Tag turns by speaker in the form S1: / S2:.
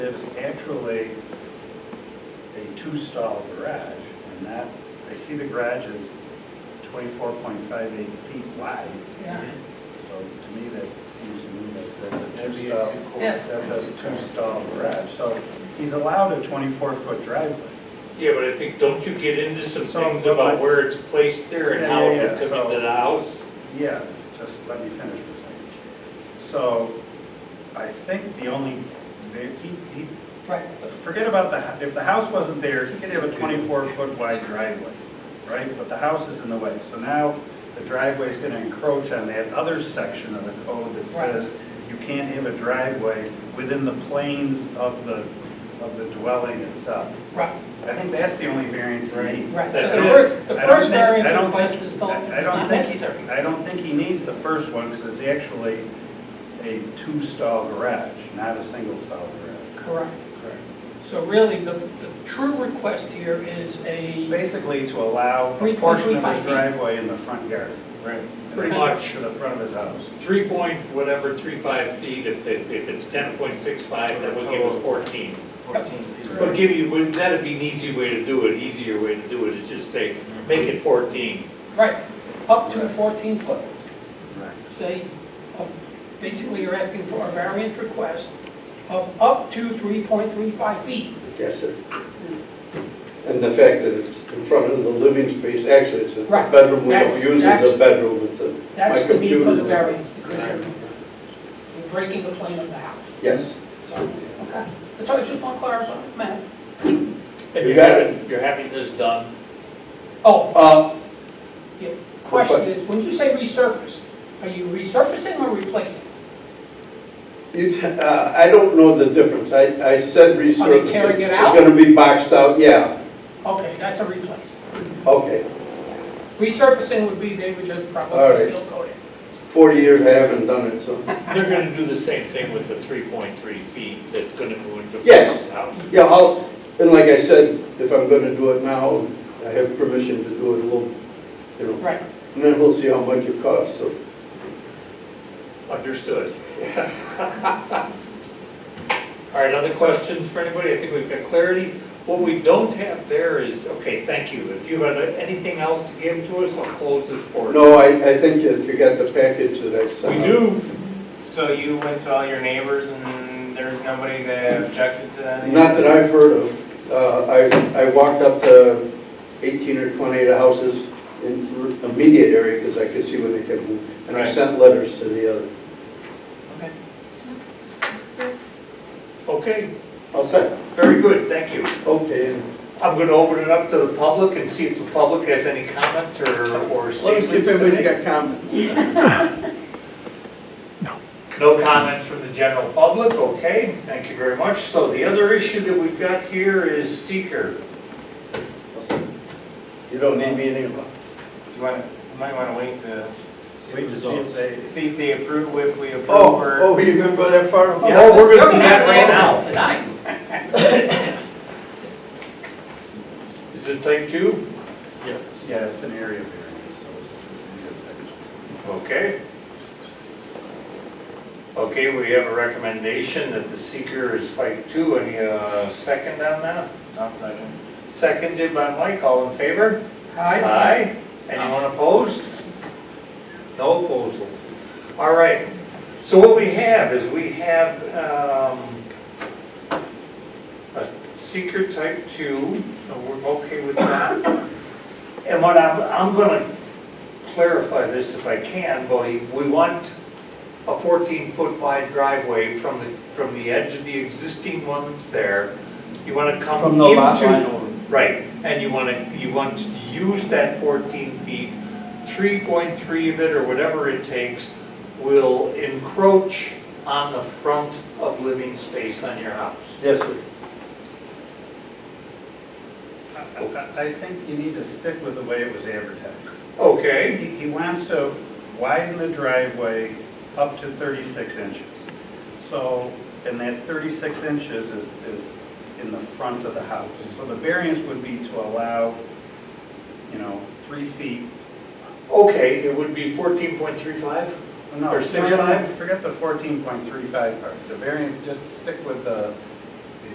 S1: There's actually a two-stall garage, and that, I see the garage is twenty-four point five eight feet wide,
S2: Yeah,
S1: so to me, that seems to me that
S3: That'd
S1: that's a
S3: be a
S4: uh,
S1: two-stall,
S3: two-car.
S2: Yeah.
S1: that's a two-stall garage, so he's allowed a twenty-four foot driveway.
S3: Yeah, but I think, don't you get into some
S1: So,
S3: things
S1: but my-
S3: about where it's placed there and
S1: Yeah,
S3: how
S1: yeah,
S3: it
S1: yeah,
S3: would
S1: so-
S3: come into the house?
S1: Yeah, just let me finish for a second. So, I think the only, the- he, he
S2: right.
S1: Forget about the, hou- if the house wasn't there, he could have a 24-foot wide driveway, right? But the house is in the way, so now the driveway is going to encroach on that other section of the code that says you can't have a driveway within the planes of the, of the dwelling itself.
S2: Right,
S1: I think that's the only variance he needs.
S2: right.
S3: That-
S2: So the
S1: I
S2: first, the
S3: that-
S1: don't
S2: first
S1: think- I
S2: variance
S1: don't
S2: request
S1: think-
S2: is not,
S1: I
S2: is
S1: don't
S2: not
S1: think-
S2: necessary.
S1: I don't think he needs the first one because it's actually a two-stall garage, not a single-stall garage.
S2: Correct.
S1: Correct.
S2: So really, the, the true request here is a,
S1: Basically to allow a
S2: Three
S1: portion of
S2: point
S1: his
S2: three five feet.
S1: driveway in the front yard.
S3: Right.
S1: and
S3: Pretty
S1: right
S3: much,
S1: To the front of his house.
S3: three point, whatever, three five feet, if it, if it's ten point six five, that would give us fourteen.
S1: Fourteen feet.
S3: But give you, would- that'd be an easy way to do it, easier way to do it, is just say, make it fourteen.
S2: right, up to
S1: Right.
S2: 14 foot.
S1: Right.
S2: Say, uh, basically, you're asking for a variance request of up to 3.35 feet.
S4: Yes, sir. And the fact that it's in front of the living space, actually, it's a
S2: Right.
S4: bedroom, we don't
S2: That's-
S4: use it as
S2: that's-
S4: a bedroom, it's a,
S2: That's
S4: my
S2: the need for
S4: computer.
S2: the variance, because you're you're breaking the plane of the house.
S4: Yes.
S2: So, okay. That's all, I just want to clarify, Matt.
S3: And
S4: You
S3: you're
S4: got it.
S3: having, you're having this done,
S2: Oh,
S4: Uh,
S2: Yeah, Question is, when you say resurface, are you resurfacing or replacing?
S4: it's, uh, I don't know the difference, I, I said resurfacing.
S2: Are they tearing it out?
S4: It's gonna be boxed out, yeah,
S2: Okay, that's a replace.
S4: okay.
S2: Resurfacing would be they would just
S4: All
S2: probably
S4: right.
S2: seal coat it.
S4: Forty years I haven't done it, so,
S3: they're gonna do the same thing with the three point three feet that's gonna go into
S4: Yes.
S3: the house.
S4: yeah, I'll, and like I said, if I'm gonna do it now, I have permission to do it a little, you know,
S2: Right,
S4: and then we'll see how much it costs, so.
S3: Understood. All right, other questions for anybody? I think we've got clarity. What we don't have there is, okay, thank you. If you had anything else to give to us, I'll close this board.
S4: No, I, I think you forgot the package that I
S3: We
S4: sent.
S3: do,
S5: So you went to all your neighbors and there was nobody that objected to that?
S4: Not that I've heard of. Uh, I, I walked up to 18 or 20 of the houses in the immediate area because I could see when they could move. And I
S5: Right.
S4: sent letters to the other.
S5: Okay.
S3: okay,
S4: I'll send,
S3: very good, thank you.
S4: okay. and-
S3: I'm going to open it up to the public and see if the public has any comments or, or statements to make.
S4: got comments.
S3: No comments from the general public, okay, thank you very much. So the other issue that we've got here is seeker.
S4: You don't need me anymore.
S5: Do you want, you might want to wait to
S1: Wait to see if they,
S5: see if they approve, if we approve
S4: Oh,
S5: or.
S4: oh, you're gonna go that far?
S3: Yeah. Oh, we're gonna do that right now.
S2: Tonight.
S3: Is it type two?
S1: yeah, it's an area variance, so it's.
S3: Okay. Okay, we have a recommendation that the seeker is type two. Any uh, second on that?
S5: I'll second.
S3: Seconded by Mike, all in favor? Uh,
S2: Aye.
S3: Aye. Anyone opposed? No opposals. All right, so what we have is we have um, a seeker type two, so we're okay with that. And what I'm, I'm gonna clarify this if I can, but we want a 14-foot wide driveway from the, from the edge of the existing one that's there. You wanna come into...
S4: From the lot line over.
S3: Right, and you want to, you want to use that 14 feet, 3.3 of it or whatever it takes will encroach on the front of living space on your house.
S4: Yes, sir.
S1: I- I, I think you need to stick with the way it was advertised.
S3: Okay.
S1: He, he wants to widen the driveway up to 36 inches. So, and that 36 inches is, is in the front of the house. So the variance would be to allow, you know, three feet.
S3: Okay, it would be 14.35?
S1: No,
S3: Or
S1: forget-
S3: 6.5?
S1: Forget the 14.35 part. The variance, just stick with the